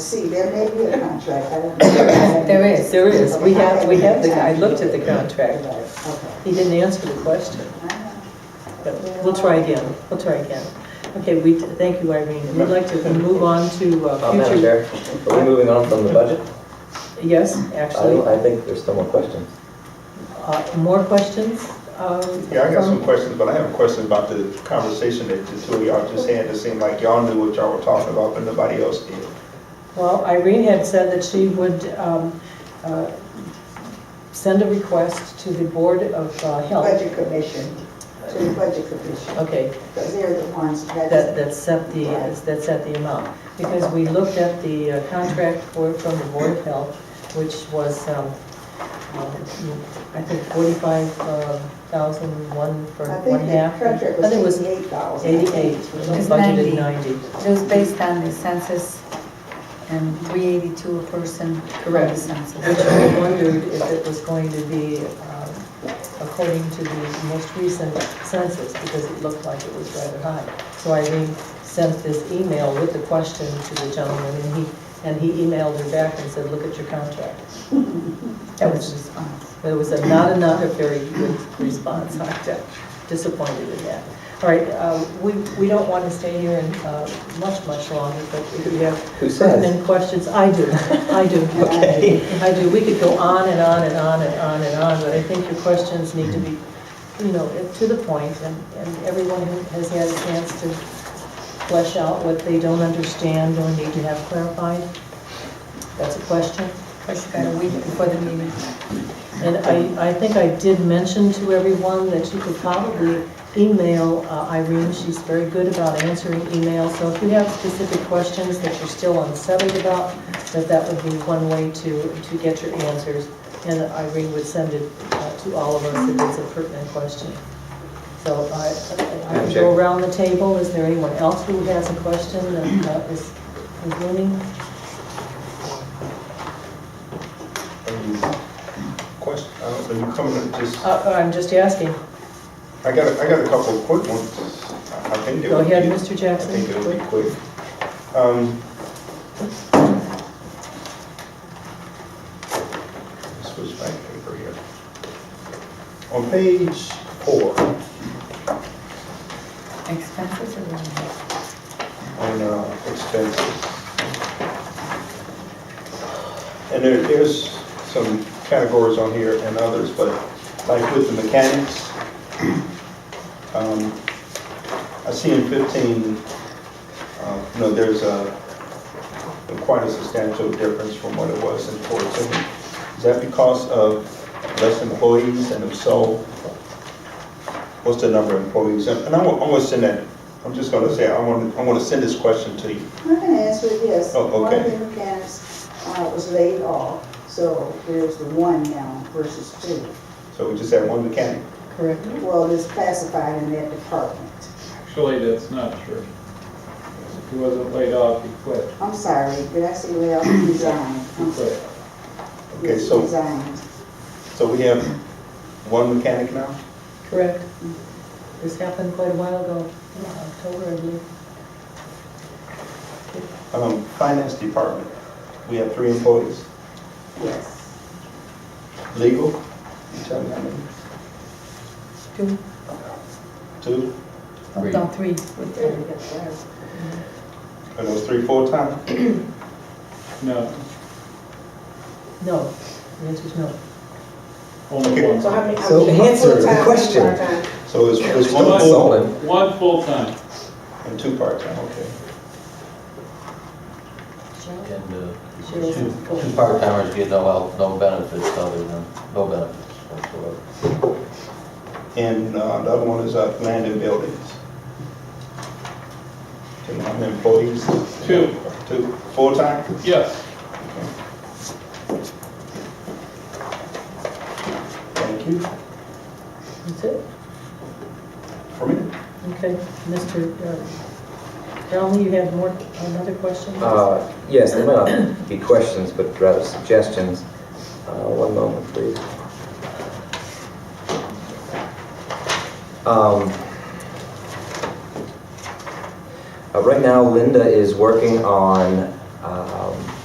see, there may be a contract, I don't. know. There is, there is. We have, we have the, I looked at the contract. Okay. He didn't answer the question. But We'll try again, we'll try again. Okay, we, thank you, Irene. We'd like to move on to Uh, uh, Madam future. Chair, are we moving on from the budget? Yes, I, actually. I think there's still more questions. Uh, More questions? um, Yeah, I got some from- questions, but I have a question about the conversation that the two of y'all just had. It seemed like y'all knew what y'all were talking about, but nobody else did. Well, Irene had said that she would um, uh, send a request to the Board of uh, Health. Budget commission, to the budget commission, Okay, because they're the ones that, that, that set the, that set the amount. Because we looked at the uh, contract for, from the Board of Health, which was, um, um, I think forty-five uh, thousand, one for I one think half. the contract I think it was was eighty-eight thousand. eighty-eight, was budgeted 90. ninety. It was based on the census and 382 a person from the Correct. Which census. we wondered if it was going to be um, according to the most recent census, because it looked like it was rather high. So Irene sent this email with the question to the gentleman, and he, and he emailed her back and said, look at your contract. That was the response. It was a not another very good response, I'm disappointed in that. All right, uh, we, we don't want to stay here and, uh, much, much longer, but if you have Who says? pertinent questions, I do, I do. Okay. I do, we could go on and on and on and on and on, but I think your questions need to be, you know, to the point, and, and everyone who has had a chance to flesh out what they don't understand or need to have clarified. That's a question. Of course, you got a week before the meeting. And I, I think I did mention to everyone that you could probably email uh, Irene, she's very good about answering emails, so if you have specific questions that you're still unsettled about, that that would be one way to, to get your answers, and Irene would send it uh, to all of us if it's a pertinent question. So I, I can go around the table, is there anyone else who has a question that uh, is, is looming? Any Question, I don't know, you coming up just, Uh, I'm just asking, I got, a- I got a couple of quick ones. I I think they go would ahead, be- Mr. I Jackson. think it'll be quick. Um, Switch back paper here. On page four, Expenses or what? on uh, expenses. And there, there's some categories on here and others, but like with the mechanics, um, I see in 15, uh, you know, there's a, quite a substantial difference from what it was in 14. Is that because of less employees, and if so, what's the number of employees? And and I'm, I'm gonna send that, I'm just gonna say, I want, I want to send this question to you. I'm gonna answer it, yes. Oh, One of okay. the mechanics uh, was laid off, so there's the one now versus two. So we just had one mechanic. Correct. Well, it's classified in that department. Actually, that's not true. He wasn't laid off, he quit. I'm sorry, did I say layoff? Resigned. He I'm sorry. quit. Okay, so- Resigned. So we have one mechanic now? Correct. This happened quite a while ago, in October, I believe. Um, finance department, we have three employees. Yes. Legal, you tell me how many? Two, Two, oh, no, three. with There three. we go. are those three full-time? No, No, the answer's no. only one. So how many? So answer the full-time, question. part-time? So it's, it's one Don't full insult him. One full-time. and two part-time, okay. Cheryl? And uh, Cheryl's two, full. two part-timers get no help, no benefits other than, no benefits whatsoever. And, uh, the other one is, uh, land and buildings. Do you know how many employees? Two. Two, full-time? Yes, Thank you. That's it? For me? Okay, Mr. Dowling, you had more, another question? Uh, yes, they might not be questions, but rather suggestions. Uh, one moment, please. Um, uh, right now Linda is working on, um,